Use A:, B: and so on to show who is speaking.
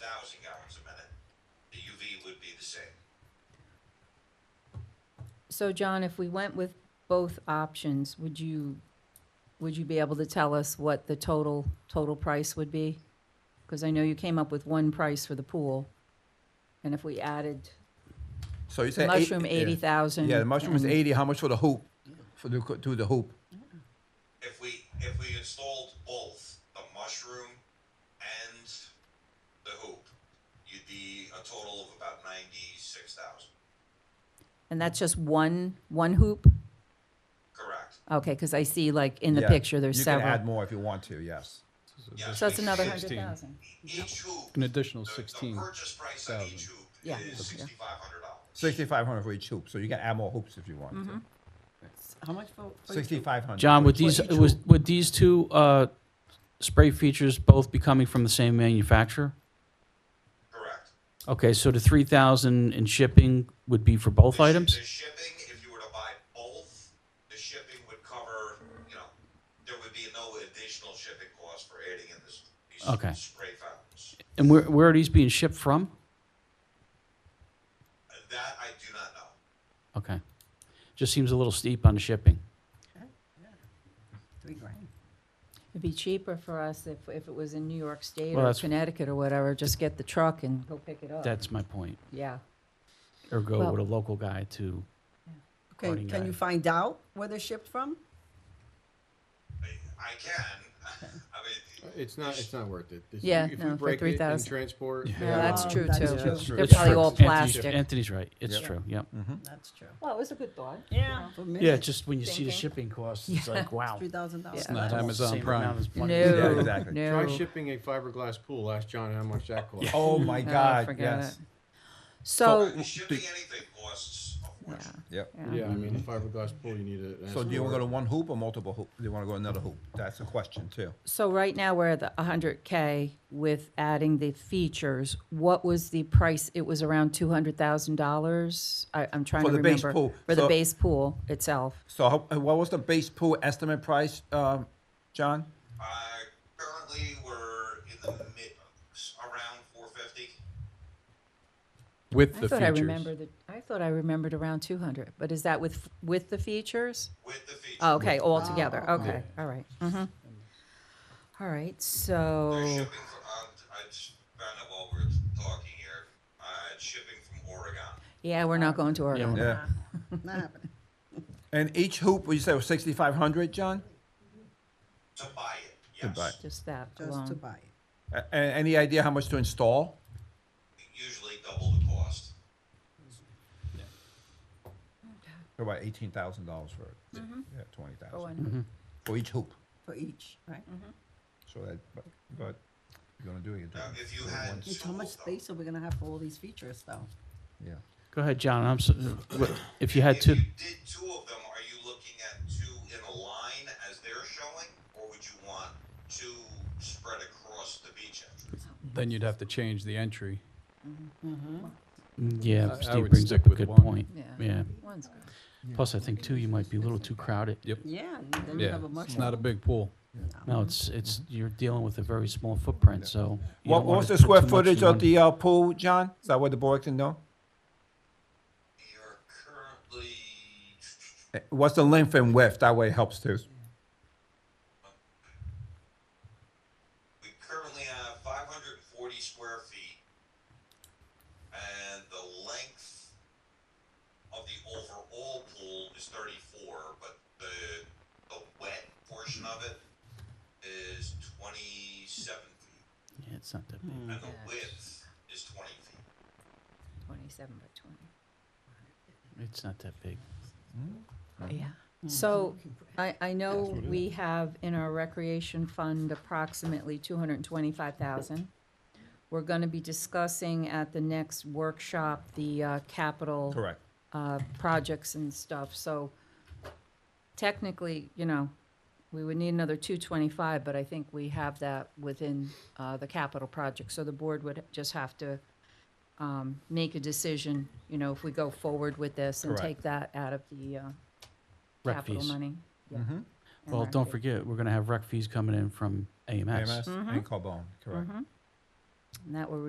A: thousand gallons a minute. The UV would be the same.
B: So John, if we went with both options, would you, would you be able to tell us what the total, total price would be? Because I know you came up with one price for the pool, and if we added
C: So you
B: the
C: said. eight-
B: mushroom,
C: yeah.
B: eighty thousand.
C: Yeah, the mushroom is eighty, how much for the hoop, for the, to the hoop?
A: If we, if we installed both the mushroom and the hoop, you'd be a total of about ninety-six thousand,
B: And that's just one, one hoop?
A: correct?
B: Okay, because I see like in the
C: Yeah,
B: picture, there's
C: You can add
B: several.
C: more if you want to, yes.
A: Yes,
B: So that's
A: we-
B: another hundred
D: 16.
B: thousand.
A: Each hoop,
D: An
A: the,
D: additional
A: the
D: 16.
A: purchase price on each hoop
B: Yeah.
A: is sixty-five hundred dollars.
C: Sixty-five hundred for each hoop, so you can add more hoops if you want to.
E: Mm-hmm. How much for? for each-
C: Sixty-five hundred.
F: John, would these was, would these two uh, spray features both be coming from the same manufacturer?
A: Correct.
F: Okay, so the three thousand in shipping would be for both
A: The shi-
F: items.
A: The shipping, if you were to buy both, the shipping would cover, you know, there would be no additional shipping cost for adding in this, these
F: Okay.
A: spray fountains.
F: And where where are these being shipped from?
A: Uh, That I do not know.
F: Okay, just seems a little steep on the shipping.
E: Three grand.
B: It'd be cheaper for us if, if it was in New York State
F: Well,
B: or
F: that's-
B: Connecticut or whatever, just get the truck and go pick it up.
F: That's my point.
B: Yeah.
F: Or go
B: Well-
F: with a local guy to.
E: Okay,
F: According to
E: can you
F: that.
E: find out where they're shipped from?
A: I- I can, I mean,
G: It's not, it's not worth it. It's-
B: Yeah,
G: if we
B: no, for
G: break it in
B: 3,000.
G: Transport. uh,
B: No, that's
E: Oh,
B: true
E: that's
C: That's
B: too.
C: true.
B: They're
C: It's
B: probably
F: true.
B: all
F: Anthony's-
B: plastic.
F: Anthony's right. It's true. Yep.
E: That's true.
B: Well, it was a good thought.
E: Yeah.
F: Yeah, just when you see the
B: Thinking.
F: shipping costs, it's like wow.
E: Three thousand dollars.
B: Yeah. Not
D: Amazon
F: Same
D: Prime.
F: amount as
B: No,
F: one.
C: exactly.
G: Try
B: no.
G: shipping a fiberglass pool. Ask John how much that costs.
C: Oh, my
B: Oh,
C: God,
B: forget
C: yes,
B: it. So,
A: uh, shipping anything costs a fortune.
C: yep.
G: Yeah, I mean, a fiberglass pool, you need a.
C: So do you wanna go to one hoop or multiple hoop? Do you wanna go another hoop? That's a question too.
B: so right now we're at the hundred K with adding the features. What was the price? It was around two hundred thousand dollars? I, I'm trying
C: For
B: to
C: the base
B: remember.
C: pool.
B: For the
C: So-
B: base pool itself.
C: So how- uh, what was the base pool estimate price, um, John?
A: Uh, currently, we're in the mid, around four fifty.
D: With
B: I
D: the
B: thought I
D: features.
B: remembered, that- I thought I remembered around two hundred, but is that with, with the features?
A: With the feature,
B: Oh, Okay, all together, okay, all right. mhm. All right,
A: They're
B: so,
A: shipping from, uh, I just found out while we we're talking here, uh, it's shipping from Oregon.
B: yeah, we're not going to Oregon.
C: Yeah.
E: Not happening.
C: And each hoop, would you say was sixty-five hundred, John?
A: To buy it,
C: To
A: yes.
C: buy.
B: Just that
E: Just to
B: alone.
E: buy it.
C: A- a- any idea how much to install?
A: Usually double the cost.
C: About eighteen thousand dollars for it. Yeah, twenty
B: For
C: thousand,
B: one-
C: for each hoop.
E: for each, right?
C: So that, but, but you're gonna do it, you're
A: Now,
C: doing it.
A: if you had
E: It's
A: two
E: how much
A: of them,
E: space are we gonna have for all these features though?
C: yeah.
F: Go ahead, John. I'm so, what- if you had
A: if you
F: two.
A: did two of them, are you looking at two in a line as they're showing? Or would you want two spread across the beach entrance?
D: Then you'd have to change the entry.
F: Yeah,
D: I- I
F: Steve
D: would
F: brings
D: stick
F: up a
D: with
F: good
D: one.
F: point.
B: Yeah.
F: Yeah.
B: One's good.
F: Plus, I think too, you might be a little too crowded.
D: Yep.
E: Yeah, and then you
D: Yeah,
E: have a much.
D: it's not a big pool.
F: No, it's it's you're dealing with a very small footprint, so. you
C: What, what
F: don't wanna
C: was the
F: put
C: square
F: too much
C: footage
F: in
C: of
F: one-
C: the, uh, pool, John? Is that what the board can know?
A: You're currently,
C: Eh, What's the length and width? That way it helps too.
A: we currently have five hundred and forty square feet. And the length of the overall pool is thirty-four, but the, the wet portion of it is twenty-seven feet.
F: Yeah, it's not that big.
A: and the width is 20 feet.
B: Twenty-seven by twenty.
F: It's not that big.
B: Yeah. So, Hmm. I, I know we have in our recreation fund approximately two hundred and twenty-five thousand. We're gonna be discussing at the next workshop, the, uh, capital.
C: Correct.
B: uh, projects and stuff, so technically, you know, we would need another two twenty-five, but I think we have that within, uh, the capital project, so the board would just have to um, make a decision, you know, if we go forward with this and
C: Correct.
B: take that out of the, uh,
F: Rec
B: capital
F: fees.
B: money. Yeah.
C: Mm-hmm.
B: And
F: Well,
B: rec
F: don't
B: fee.
F: forget, we're gonna have rec fees coming in from AMS.
C: AMS and Carbone, correct.
B: And that will